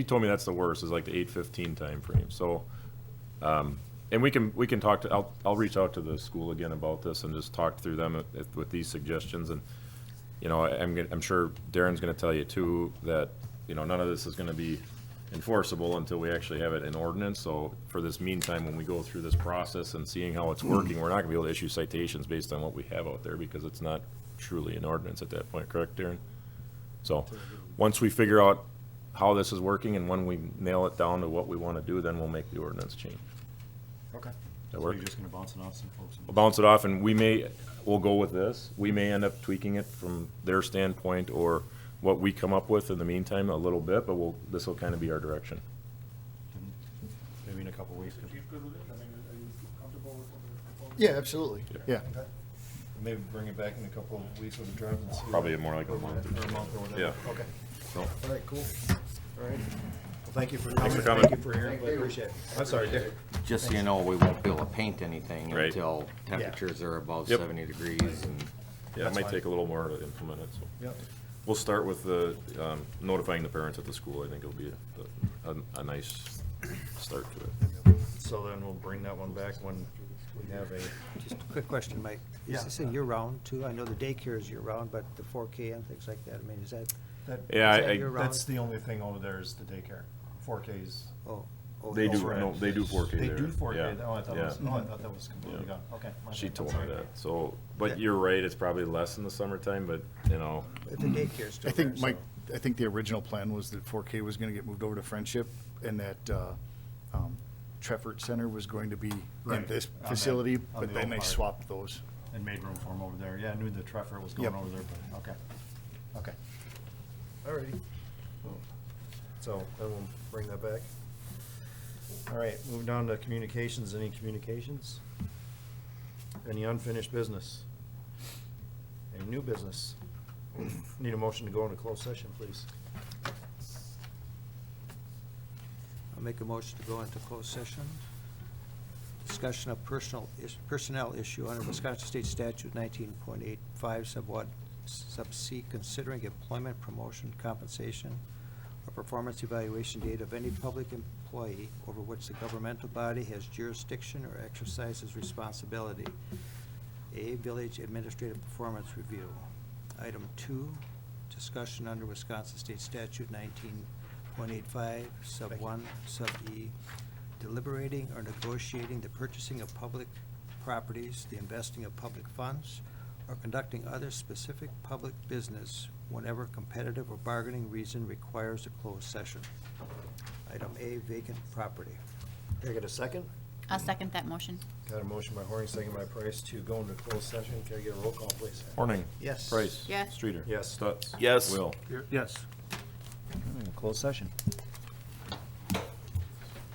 He told me that's the worst, is like the eight fifteen timeframe, so, um, and we can, we can talk to, I'll, I'll reach out to the school again about this and just talk through them if- with these suggestions and, you know, I- I'm, gonna- I'm sure Darren's gonna tell you too, that, you know, none of this is gonna be enforceable until we actually have it in ordinance, so for this meantime, when we go through this process and seeing how it's working, we're not gonna be able to issue citations based on what we have out there, because it's not truly an ordinance at that point, correct, Darren? So, once we figure out how this is working and when we nail it down to what we want to do, then we'll make the ordinance change. Okay. That So work? you're just gonna bounce it off some folks? and- We'll bounce it off and we may, we'll go with this. We may end up tweaking it from their standpoint or what we come up with in the meantime a little bit, but we'll, this will kind of be our direction. Maybe in a couple weeks. Is the chief good with it? I mean, are you comfortable with what they're proposing? Yeah, absolutely, yeah. Maybe bring it back in a couple of weeks with a draft and see. Probably more like a Or month or Or a month or whatever. Yeah. Okay. So, All right, cool, all right. Well, thank you for Thanks for coming. coming. Thank you for hearing, Thank you, but Appreciate it. I'm sorry, Dick. Just so you know, we won't be able to paint anything Right. until temperatures are above Yep. seventy degrees and, yeah, it That's might fine. take a little more to implement it, so. Yep. We'll start with the, um, notifying the parents at the school. I think it'll be a, a- a nice start to it. So then we'll bring that one back when we have a, Just a quick question, Mike. Yeah. Is this a year-round too? I know the daycare is year-round, but the 4K and things like that, I mean, is that, that, Yeah, Is that I- I, your- that's the only thing over there is the daycare. Four Ks. oh, oh. They do, elsewhere. no, they do 4K They there. do four K. Yeah, Oh, I thought it yeah. was, oh, I thought that was completely Yeah. gone. Okay. my She bad, I'm told me sorry. that, so, but Yeah. you're right, it's probably less in the summertime, but, you know, But the daycare's I still there, think, Mike, so- uh, I think the original plan was that 4K was going to get moved over to Friendship, and that uh, um, Trefford Center was going to be in Right, this on that- facility, on the but then old they part. swapped those. And made room for him over there. Yeah, I knew the Treffer was going Yep. over there, but, okay. Okay. All righty. So then we'll bring that back. All right, moving down to communications. Any communications? Any unfinished business? Any new business? Need a motion to go into closed session, please. I'll make a motion to go into closed session. Discussion of personal, is- personnel issue under Wisconsin State Statute 19.85 sub what, sub C, considering employment, promotion, compensation, or performance evaluation data of any public employee over which the governmental body has jurisdiction or exercises responsibility. A, Village Administrative Performance Review. Item two, discussion under Wisconsin State Statute 19.85, sub Thank you. 1, sub E, deliberating or negotiating the purchasing of public properties, the investing of public funds, or conducting other specific public business whenever competitive or bargaining reason requires a closed session. Item A, vacant property. Can I get a second? I'll second that motion. Got a motion by Horning, second by Price to go into closed session. Can I get a roll call, please? Horning. Yes. Price. Yes. Streeter. Yes. Stutz. Yes. Will. Yes. Closed session.